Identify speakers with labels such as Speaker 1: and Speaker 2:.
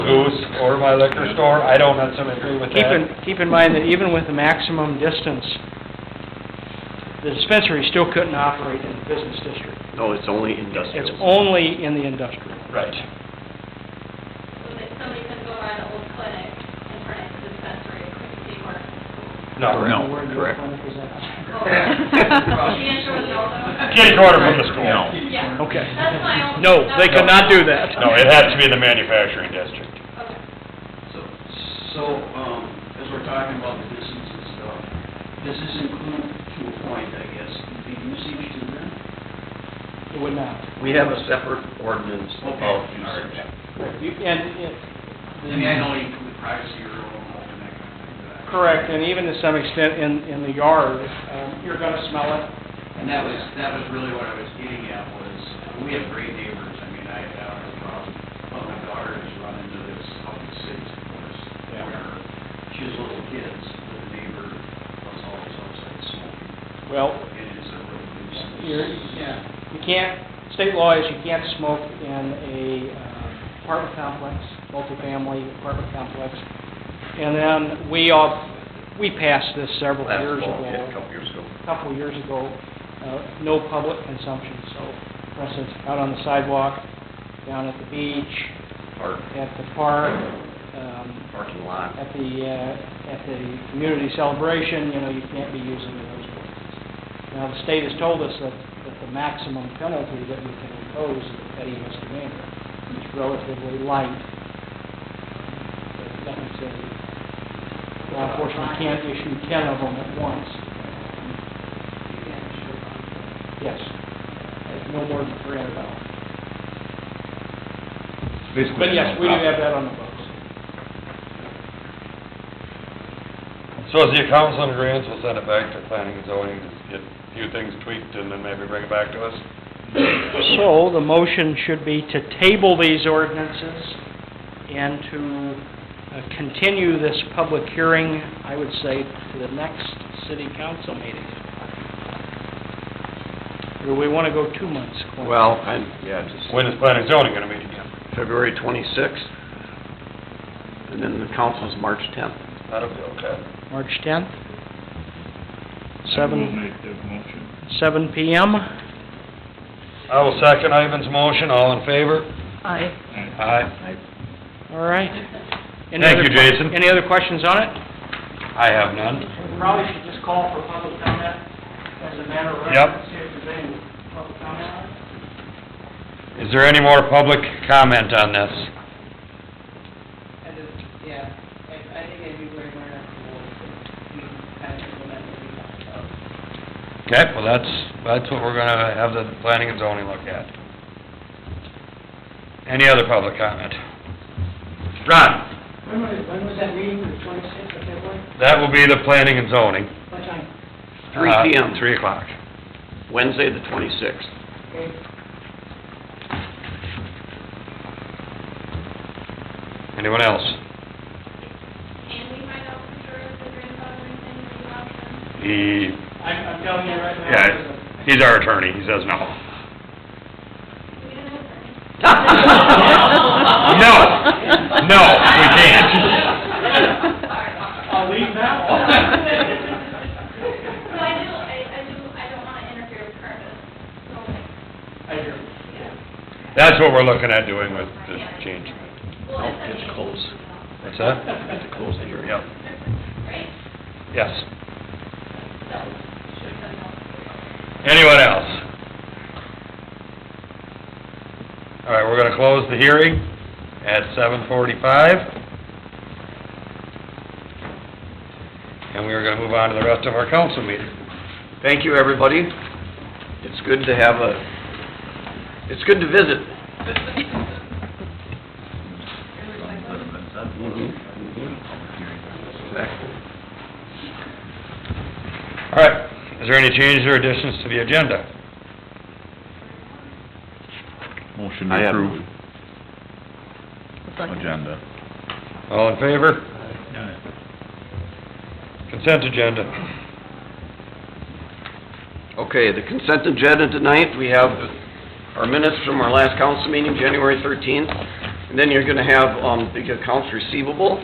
Speaker 1: or my liquor store, I don't necessarily agree with
Speaker 2: Keep in,
Speaker 1: that.
Speaker 2: keep in mind that even with the maximum distance, the dispensary still couldn't operate in the business district.
Speaker 3: No, it's only industrial.
Speaker 2: It's only in the industrial.
Speaker 1: Right.
Speaker 4: So that somebody can go by the old clinic and turn it into dispensary, it couldn't be worse.
Speaker 1: No.
Speaker 5: No,
Speaker 2: Where the
Speaker 5: correct.
Speaker 2: clinic is at.
Speaker 4: The answer was no.
Speaker 1: Can't order from the school.
Speaker 5: No.
Speaker 4: Yeah.
Speaker 2: Okay.
Speaker 4: That's my own.
Speaker 2: No, they
Speaker 4: that's-
Speaker 2: cannot do that.
Speaker 1: No, it has to be in the manufacturing district.
Speaker 4: Okay.
Speaker 6: So, so, um, as we're talking about the distance and stuff, does this include to a point, I guess, the usage to them?
Speaker 2: It would not.
Speaker 3: We have a separate ordinance about usage.
Speaker 2: You- And, it-
Speaker 6: I mean, I know you include privacy or all that kind of thing, but.
Speaker 2: correct, and even to some extent in, in the yard, um, you're gonna smell it.
Speaker 6: And that was, that was really what I was getting at was, we have great neighbors, I mean, I have no problem, but my daughter has run into this up in the cities, of course,
Speaker 2: Yeah.
Speaker 6: where she has little kids, but the neighbor was always outside smoking,
Speaker 2: Well,
Speaker 6: and it's a real nuisance.
Speaker 2: you're, yeah, you can't, state law is you can't smoke in a uh, apartment complex, multifamily apartment complex. And then we all, we passed this several
Speaker 3: Last
Speaker 2: years
Speaker 3: fall, yeah, a
Speaker 2: ago,
Speaker 3: couple years ago.
Speaker 2: a couple of years ago, uh, no public consumption. So, for instance, out on the sidewalk, down at the beach,
Speaker 3: Park,
Speaker 2: at the park, um,
Speaker 3: parking lot.
Speaker 2: at the, uh, at the community celebration, you know, you can't be using those places. Now, the state has told us that, that the maximum penalty that we can impose is a petty misdemeanor, which is relatively light. But That means that law enforcement can't issue ten of them at once. Yes. No more than three hundred dollars. But yes, we do have that on the books.
Speaker 1: So is the council in agreeance, we'll send it back to planning and zoning, just get a few things tweaked and then maybe bring it back to us?
Speaker 2: So the motion should be to table these ordinances and to uh, continue this public hearing, I would say, to the next city council meeting. Or we want to go two months? Clint?
Speaker 3: Well, I'm, yeah, just.
Speaker 1: When is planning and zoning gonna meet again?
Speaker 3: February 26th, and then the council's March 10th.
Speaker 1: That'll be okay.
Speaker 2: March 10th?
Speaker 5: I will
Speaker 2: Seven,
Speaker 5: make that motion.
Speaker 2: seven PM?
Speaker 1: I will second Ivan's motion, all in favor?
Speaker 7: Aye.
Speaker 1: Aye.
Speaker 2: All right. Any
Speaker 1: Thank you,
Speaker 2: other que-
Speaker 1: Jason.
Speaker 2: Any other questions on it?
Speaker 1: I have none.
Speaker 2: Probably should just call for public comment as a matter of
Speaker 1: Yep.
Speaker 2: reference, see if there's any public comment.
Speaker 1: Is there any more public comment on this?
Speaker 8: I just, yeah, I, I think I'd be very more comfortable if we kind of implement what we talked about.
Speaker 1: Okay, well, that's, that's what we're gonna have the planning and zoning look at. Any other public comment? Ron,
Speaker 8: When was, when was that meeting, the twenty-sixth of February?
Speaker 1: that will be the planning and zoning.
Speaker 8: What time?
Speaker 3: Three
Speaker 1: Uh,
Speaker 3: PM.
Speaker 1: Three o'clock.
Speaker 3: Wednesday, the 26th.
Speaker 8: Okay.
Speaker 1: Anyone else?
Speaker 4: Can we find out for sure if the grandfathering thing is an option?
Speaker 1: He,
Speaker 2: I'm, I'm telling you right now.
Speaker 1: yeah, he's our attorney, he says no.
Speaker 4: We don't know.
Speaker 1: No, no, we can't.
Speaker 2: I'll leave that
Speaker 4: So I do, I, I do, I don't wanna interfere with purpose, so like,
Speaker 2: I hear.
Speaker 4: yeah.
Speaker 1: That's what we're looking at doing with this change.
Speaker 4: Well,
Speaker 3: No,
Speaker 4: that's
Speaker 3: it's
Speaker 4: okay,
Speaker 3: close.
Speaker 1: What's that?
Speaker 3: Have to close the hearing.
Speaker 1: Yep,
Speaker 4: Right?
Speaker 1: yes.
Speaker 4: So, should we
Speaker 1: Anyone else? All right, we're gonna close the hearing at seven forty-five. And we are gonna move on to the rest of our council meeting.
Speaker 3: Thank you, everybody. It's good to have a, it's good to visit. Mhm,
Speaker 1: Mm-hmm,
Speaker 3: mhm. Exactly.
Speaker 1: All right, is there any changes or additions to the agenda?
Speaker 5: Motion
Speaker 3: I
Speaker 5: to
Speaker 3: have
Speaker 5: approve
Speaker 7: Second.
Speaker 5: agenda.
Speaker 1: All in favor? Consent agenda.
Speaker 3: Okay, the consent agenda tonight, we have our minutes from our last council meeting, January 13th. And then you're gonna have, um, the accounts receivable,